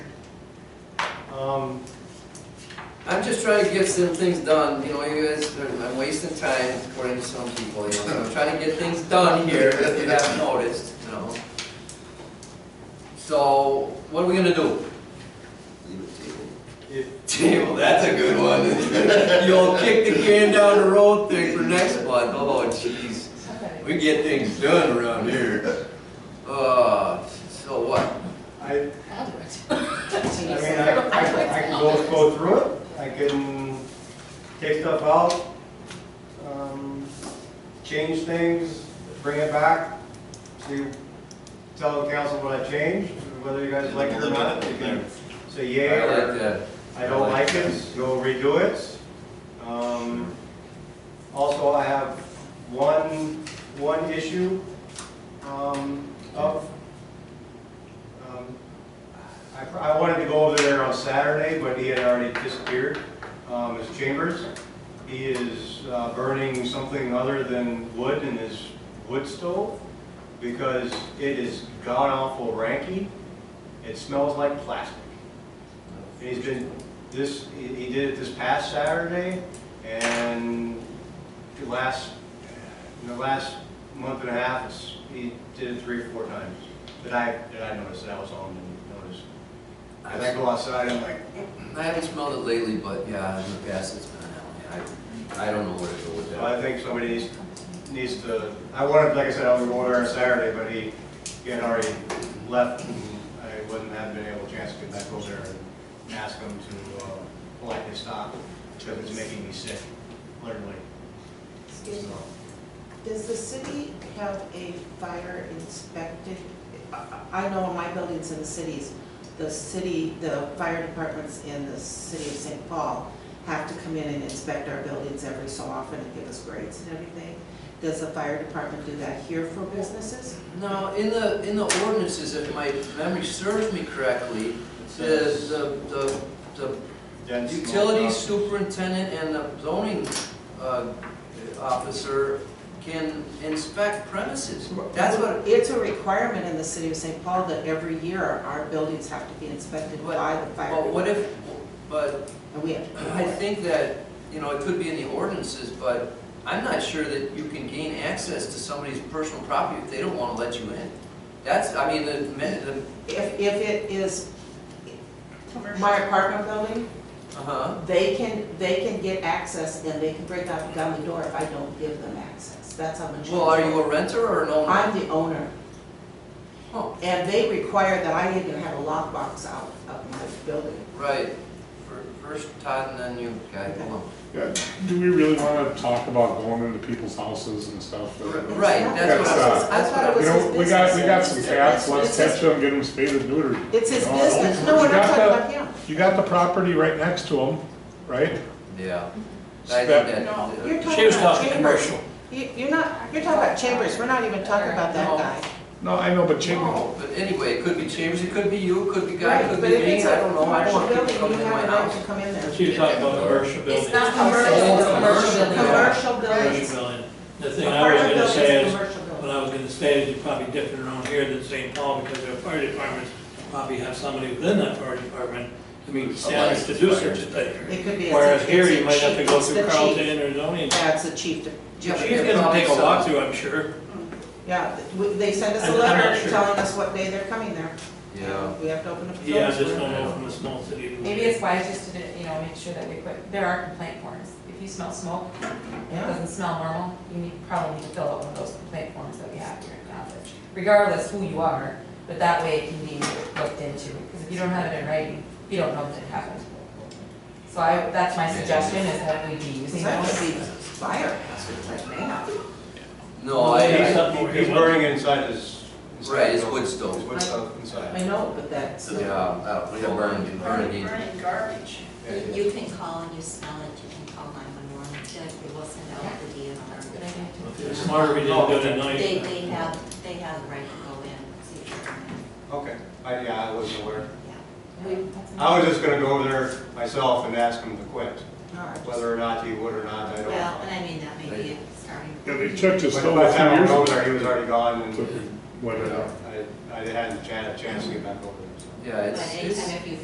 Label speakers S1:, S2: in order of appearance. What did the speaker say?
S1: Um,
S2: I'm just trying to get some things done, you know, you guys, are- I'm wasting time according to some people, you know, I'm trying to get things done here, if you haven't noticed, you know. So, what are we gonna do?
S3: Leave it table.
S1: if-
S2: Table, that's a good one. You'll kick the can down the road thing for next month, oh jeez, we get things done around here. Uh, so what?
S1: I,
S4: I'll do it.
S1: I mean, I, I I can go, go through it, I can take stuff out, um, change things, bring it back, see, tell the council what I changed, whether you guys like it or not, you can say yay
S2: I
S1: or
S2: like that.
S1: I don't like it, go redo it. Um, Also, I have one, one issue um, of, um, I I wanted to go over there on Saturday, but he had already disappeared, um, his chambers. He is uh, burning something other than wood in his wood stove because it is god-awful ranky. It smells like plastic. And He's been, this, he he did it this past Saturday, and the last, in the last month and a half, it's- he did it three or four times. That I, that I noticed, that I was on and noticed. And I go outside, I'm like,
S2: I haven't smelled it lately, but yeah, in the past it's been out. I, I don't know where to go with
S1: well,
S2: that.
S1: I think somebody needs, needs to, I wanted, like I said, I was going there on Saturday, but he, he had already left, and I wasn't, hadn't been able, chance to get back over there and ask him to, uh, politely stop, because it's making me sick, literally.
S5: Excuse me, does the city have a fire inspected? I- I I know my building's in the cities, the city, the fire departments in the city of St. Paul have to come in and inspect our buildings every so often and give us grades and everything. Does the fire department do that here for businesses?
S2: Now, in the, in the ordinances, if my memory serves me correctly, the, the, the, the
S1: Dense smoke
S2: utility
S1: up.
S2: superintendent and the zoning, uh, officer can inspect premises. That's what,
S5: It's a requirement in the city of St. Paul that every year our buildings have to be inspected by the fire.
S2: but what if, but
S5: department, And we have to pay for
S2: I
S5: it.
S2: think that, you know, it could be in the ordinances, but I'm not sure that you can gain access to somebody's personal property if they don't want to let you in. That's, I mean, the, men- the,
S5: If, if it is my apartment building,
S2: uh-huh.
S5: they can, they can get access and they can break up down the door if I don't give them access. That's how much.
S2: Well, are you a renter or an owner?
S5: I'm the owner,
S2: Oh,
S5: and they require that I even have a lockbox out of my building.
S2: Right. Fir- First Todd and then you, guy, hold on.
S6: Yeah, Do we really want to talk about going into people's houses and stuff?
S2: Right, that's what I was,
S5: I thought it
S6: You
S5: was his
S6: know,
S5: business.
S6: we got, we got some
S5: It's
S6: cats,
S5: his
S6: let's
S5: business.
S6: catch them, get them spayed and neutered.
S5: It's his
S6: No,
S5: business, no,
S6: you
S5: we're not
S6: got
S5: talking
S6: the-
S5: about him.
S6: You got the property right next to them, right?
S2: yeah. I think that-
S5: No,
S2: uh,
S5: you're
S7: She
S5: talking
S7: was
S5: about
S7: talking
S5: chambers.
S7: commercial.
S5: You- You're not, you're talking about chambers, we're not even talking about that
S2: No.
S5: guy.
S6: No, I know, but Chambers,
S2: No, But anyway, it could be Chambers, it could be you, it could be Guy,
S5: Right,
S2: it could be
S5: but if
S2: me,
S5: it's
S2: I
S5: a
S2: don't know, I don't want
S5: commercial
S2: people
S5: building,
S2: coming
S5: you
S2: in
S5: have
S2: my
S5: a right
S2: house.
S5: to come in there.
S7: She was talking about commercial building.
S4: It's not commercial, it's a commercial building.
S5: Commercial buildings.
S7: Commercial building. The thing I was
S5: Apartment
S7: gonna
S5: buildings,
S7: say is,
S5: commercial buildings.
S7: what I was gonna say is you're probably different around here than St. Paul because their fire departments probably have somebody within that fire department to meet standards to do such a thing.
S5: It could be. a-
S7: Whereas
S5: it's
S7: here,
S5: a
S7: you might have to go
S5: chief-
S7: through
S5: it's the chief.
S7: Carlton or zoning.
S5: Yeah, it's the chief, to-
S2: Yeah, but
S7: She's
S2: they're
S7: gonna take a
S2: probably some-
S7: walkthrough, I'm sure.
S5: yeah, th- we- they send us
S7: I'm-
S5: a
S7: I'm not
S5: letter
S7: sure.
S5: telling us what day they're coming there.
S2: Yeah.
S5: We have to open up. the
S7: Yeah, I
S5: doors
S7: just
S5: for
S7: don't
S5: them.
S7: know from a small city.
S4: Maybe it's wise just to, do- you know, make sure that we put, there are complaint forms. If you smell smoke, it
S5: Yeah.
S4: doesn't smell normal, you need, probably need to fill out one of those complaint forms that we have here in Goffridge, regardless who you are, but that way it can be looked into, because if you don't have it in writing, you don't know that it happened. So I, that's my suggestion, is that we be using
S5: Because that would
S4: those.
S5: be fire hazard, like, man.
S2: No, I,
S1: He's burning it inside his. inside
S2: Right, his
S1: his
S2: wood stove.
S1: His wood stove inside.
S5: I know, but that's.
S2: Yeah, uh, we have burning, burning.
S8: Burning garbage.
S2: Yeah.
S8: You can call and you smell it, you can call 911, we will send out the DNR.
S7: It's smarter we didn't do it at night.
S8: They, they have, they have the right to go in, and see if they're in.
S1: Okay, I, yeah, I wasn't aware.
S8: We
S1: I was just gonna go over there myself and ask him to quit,
S5: All right.
S1: whether or not he would or not, I don't
S8: Well,
S1: know.
S8: and I mean, that may be a starting.
S6: yeah, they checked his
S1: But
S6: stove
S1: By
S6: a
S1: the
S6: few
S1: time I went
S6: years
S1: over
S6: ago.
S1: there, he was already gone
S6: Took
S1: and
S6: and Went
S1: I,
S6: it out.
S1: I hadn't had a chance to get back over there, so.
S2: Yeah,
S8: But
S2: it's, it's.
S8: anytime if you